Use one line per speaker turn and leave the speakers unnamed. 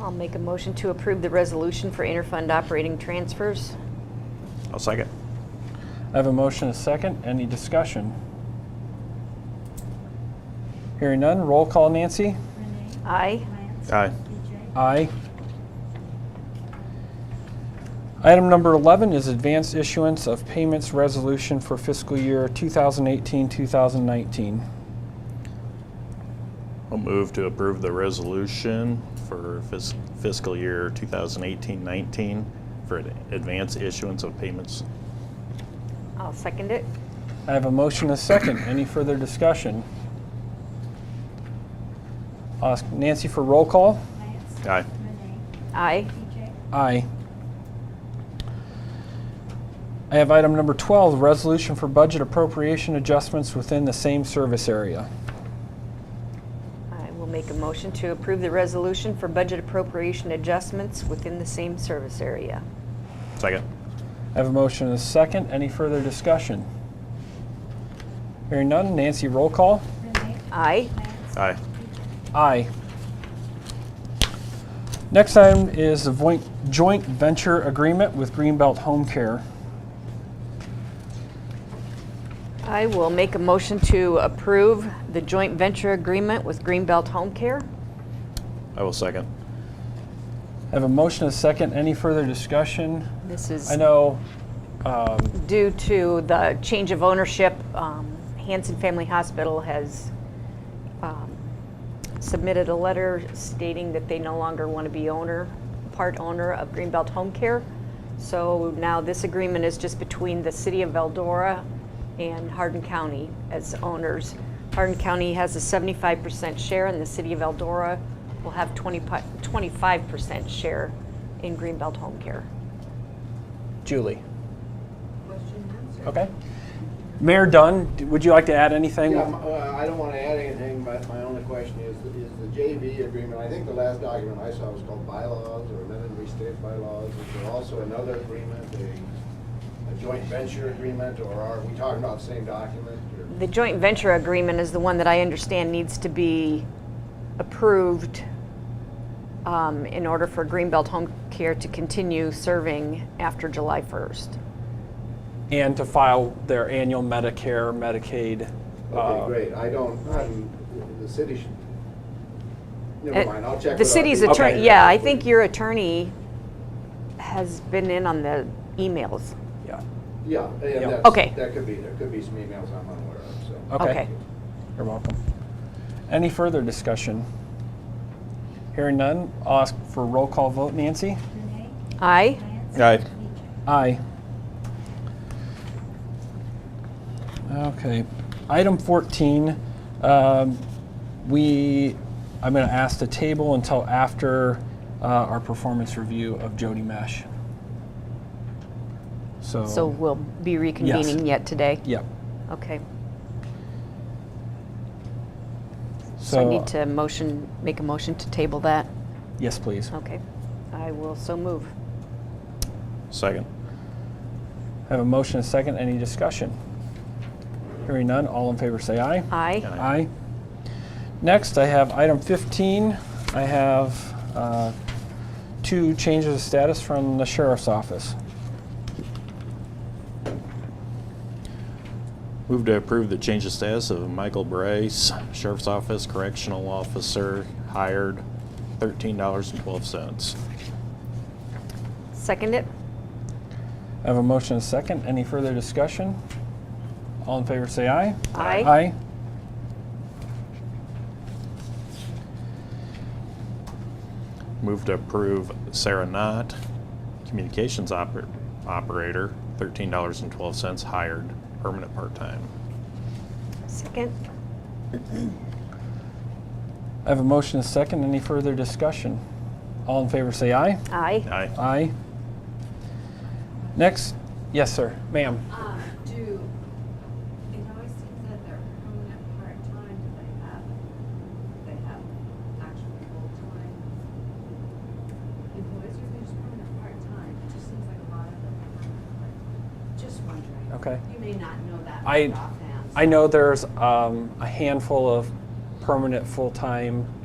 I'll make a motion to approve the resolution for interfund operating transfers.
I'll second.
I have a motion, a second. Any discussion? Hearing none. Roll call, Nancy.
Renee?
Aye.
Lance?
Aye.
BJ?
Aye. Item number 11 is advanced issuance of payments resolution for fiscal year 2018-2019.
I'll move to approve the resolution for fis- fiscal year 2018-19 for ad- advance issuance of payments.
I'll second it.
I have a motion, a second. Any further discussion? I'll Ask Nancy for roll call.
Lance?
Aye.
Renee?
Aye.
BJ?
Aye. I have item number 12, resolution for budget appropriation adjustments within the same service area.
I will make a motion to approve the resolution for budget appropriation adjustments within the same service area.
Second.
I have a motion and a second. Any further discussion? Hearing none. Nancy, roll call.
Renee?
Aye.
Lance?
Aye.
Aye. Next item is the voin- joint venture agreement with Greenbelt Home Care.
I will make a motion to approve the joint venture agreement with Greenbelt Home Care.
I will second.
I have a motion and a second. Any further discussion?
This is
I know um,
due to the change of ownership. um, Hanson Family Hospital has um, submitted a letter stating that they no longer want to be owner, part owner of Greenbelt Home Care. So now this agreement is just between the city of Eldora and Hardin County as owners. Hardin County has a 75% share and the city of Eldora will have 20 pi- 25% share in Greenbelt Home Care.
Julie. Okay. Mayor Dunn, d- would you like to add anything?
Yeah, m- uh, I don't want to add anything, but my only question is, is the JV agreement, I think the last document I saw was called bylaws or amended and restated bylaws. Is there also another agreement, a, a joint venture agreement, or are we talking about the same document? or-
The joint venture agreement is the one that I understand needs to be approved um, in order for Greenbelt Home Care to continue serving after July 1st.
And to file their annual Medicare, Medicaid. uh,
Okay, great, I don't, I'm, the city should, never
Uh,
mind, I'll check.
The
with our
city's
people.
attorney, yeah, I think your attorney has been in on the emails.
Yeah.
Yeah, and that's-
Okay.
that could be, there could be some emails I'm unaware of, so.
Okay. You're welcome. Any further discussion? Hearing none, I'll ask for roll call vote. Nancy?
Renee?
Aye?
Lance?
Aye.
BJ?
Aye. Okay. Item 14, um, we, I'm going to ask the table until after uh, our performance review of Jody Mesh. So.
So we'll be reconvening yet today?
Yep.
Okay, so I need to motion, make a motion to table that?
uh, Yes, please.
Okay, I will so move.
Second.
I have a motion and a second. Any discussion? Hearing none, all in favor say aye.
Aye?
Aye.
Aye. Next, I have item 15. I have uh, two changes of status from the sheriff's office.
Move to approve the change of status of Michael Brace, Sheriff's Office Correctional Officer, hired $13.12.
Second it?
I have a motion and a second. Any further discussion? All in favor say aye.
Aye.
Aye.
Move to approve Sarah Knott, Communications oper- Operator, $13.12, hired, permanent part-time.
Second?
I have a motion and a second. Any further discussion? All in favor say aye.
Aye?
Aye.
Aye. Next, yes, sir. Ma'am.
Um, do, it always seems that they're permanent part-time, do they have, they have actual full-time employees, or they're just permanent part-time? It just seems like a lot of them are permanent part-time. Just wondering.
Okay.
You may not know that
I-
right offhand.
I know there's um, a handful of permanent full-time